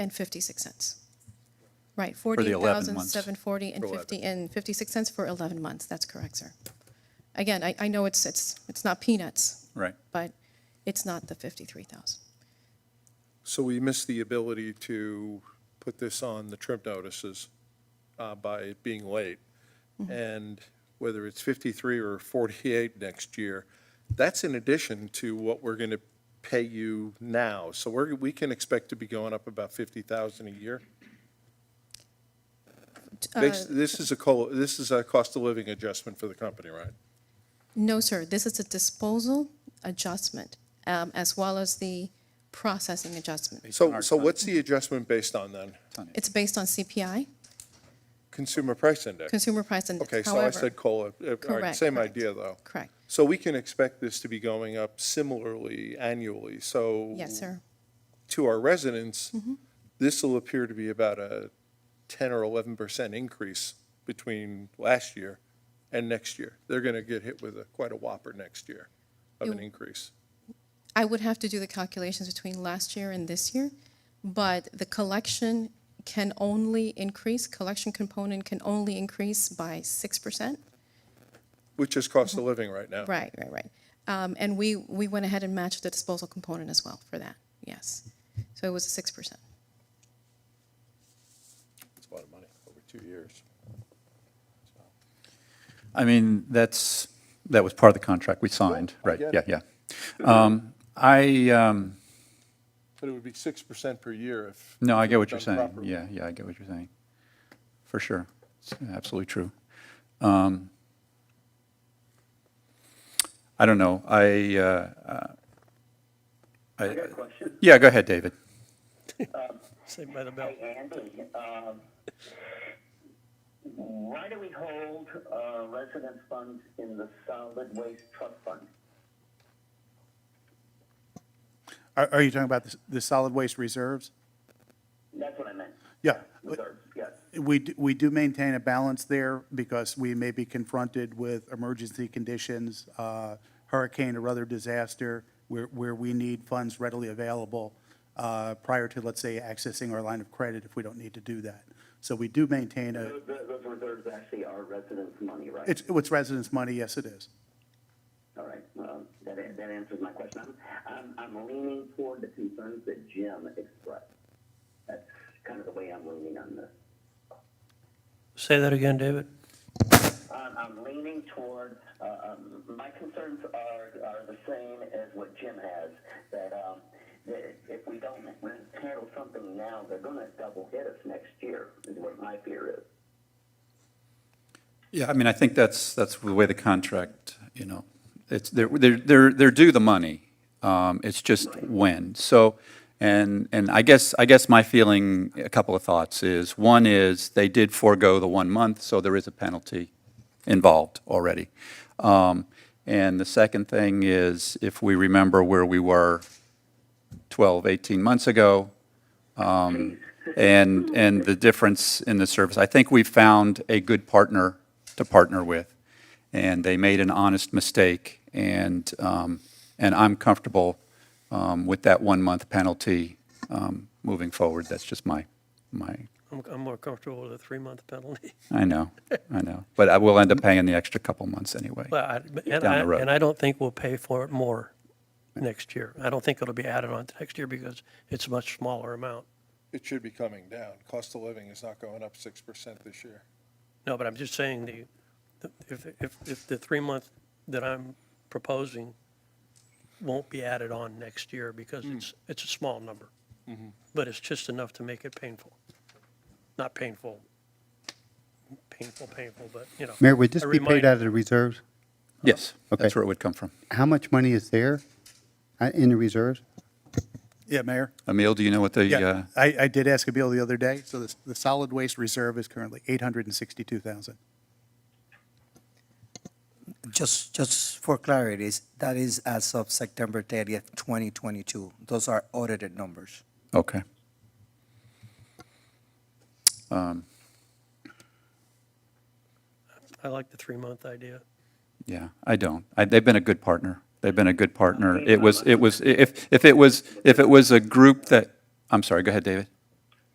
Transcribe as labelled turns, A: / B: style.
A: And 56 cents. Right,
B: the 11 months.
A: 14,740 and 50, and 56 cents for 11 months, that's correct, sir. Again, I, I know it's, it's, it's not peanuts,
B: Right.
A: but it's not the 53,000.
C: So we missed the ability to put this on the trip notices uh, by it being late.
A: Mm-hmm.
C: And whether it's 53 or 48 next year, that's in addition to what we're going to pay you now. So we're, we can expect to be going up about 50,000 a year.
A: uh,
C: This this is a, col- this is a cost of living adjustment for the company, right?
A: No, sir, this is a disposal adjustment, um, as well as the processing adjustment.
B: on
C: So,
B: our
C: so
B: ton-
C: what's the adjustment based on then?
A: It's based on CPI,
C: Consumer price index?
A: Consumer Price Index.
C: Okay, so I
A: However-
C: said COLA. Uh, all right,
A: Correct,
C: Same
A: correct.
C: idea, though.
A: Correct,
C: So we can expect this to be going up similarly annually, so.
A: yes, sir. Mm-hmm.
C: To our residents, this will appear to be about a 10 or 11% increase between last year and next year. They're going to get hit with a- quite a whopper next year of an
A: You-
C: increase.
A: I would have to do the calculations between last year and this year, but the collection can only increase, collection component can only increase by six percent.
C: Which is cost of living right now.
A: Mm-hmm. Right, right, right. Um, and we, we went ahead and matched the disposal component as well for that, yes. So it was a six percent.
C: It's a lot of money over two years.
B: I mean, that's, that was part of the contract we signed, right?
C: get
B: Yeah,
C: it.
B: yeah. Um, I, um,
C: But it would be 6% per year if.
B: no, I get what you're
C: done
B: saying.
C: properly.
B: Yeah, yeah, I get what you're saying. For sure. It's absolutely true. Um, I don't know. I, uh, uh,
D: I got a question.
B: yeah, go ahead, David.
E: Saved by the bell.
D: Hey, Andy, um, why do we hold, uh, resident funds in the solid waste trust fund?
F: Are, are you talking about the, the solid waste reserves?
D: That's what I meant,
F: Yeah.
D: reserves, yes.
F: We, d- we do maintain a balance there because we may be confronted with emergency conditions, uh, hurricane or other disaster, where, where we need funds readily available uh, prior to, let's say, accessing our line of credit if we don't need to do that. So we do maintain a,
D: Those, those reserves actually are residents' money, right?
F: it's, it's residents' money, yes, it is.
D: All right, well, that, a- that answers my question. I'm, I'm, I'm leaning toward the concerns that Jim expressed. That's kind of the way I'm leaning on this.
E: Say that again, David.
D: Um, I'm leaning toward, uh, um, my concerns are, are the same as what Jim has, that, um, that if we don't we handle something now, they're gonna double hit us next year, is what my fear is.
B: Yeah, I mean, I think that's, that's the way the contract, you know, it's, they're, they're, they're they're due the money. Um, It's just when. So, and, and I guess, I guess my feeling, a couple of thoughts is, one is they did forego the one month, so there is a penalty involved already. Um, And the second thing is, if we remember where we were 12, 18 months ago, um, and, and the difference in the service. I think we found a good partner to partner with, and they made an honest mistake, and, um, and I'm comfortable um, with that one-month penalty um, moving forward. That's just my, my,
E: I'm, I'm more comfortable with a three-month penalty.
B: I know, I know. But I will end up paying the extra couple months anyway.
E: Well, I- and
B: Down
E: I,
B: the road.
E: and I don't think we'll pay for it more next year. I don't think it'll be added on to next year because it's a much smaller amount.
C: It should be coming down. Cost of living is not going up 6% this year.
E: No, but I'm just saying the, the- if, if, if the three-month that I'm proposing won't be added on next year because it's, it's a small number. But it's just enough to make it painful. Not painful, painful, painful, but, you know.
G: Mayor, would
E: a
G: this be paid
E: reminder.
G: out of the reserves?
B: Yes,
G: Okay.
B: that's where it would come from.
G: How much money is there uh, in the reserves?
F: Yeah, Mayor?
B: Emil, do you know what the, uh,
F: Yeah, I, I did ask a bill the other day, so the, the solid waste reserve is currently 862,000.
H: Just, just for clarity, is- that is as of September 30th, 2022. Those are audited numbers.
B: okay. Um,
E: I like the three-month idea.
B: Yeah, I don't. I, they've been a good partner. They've been a good partner. It was, it was, if, if it was, if it was a group that, I'm sorry, go ahead, David.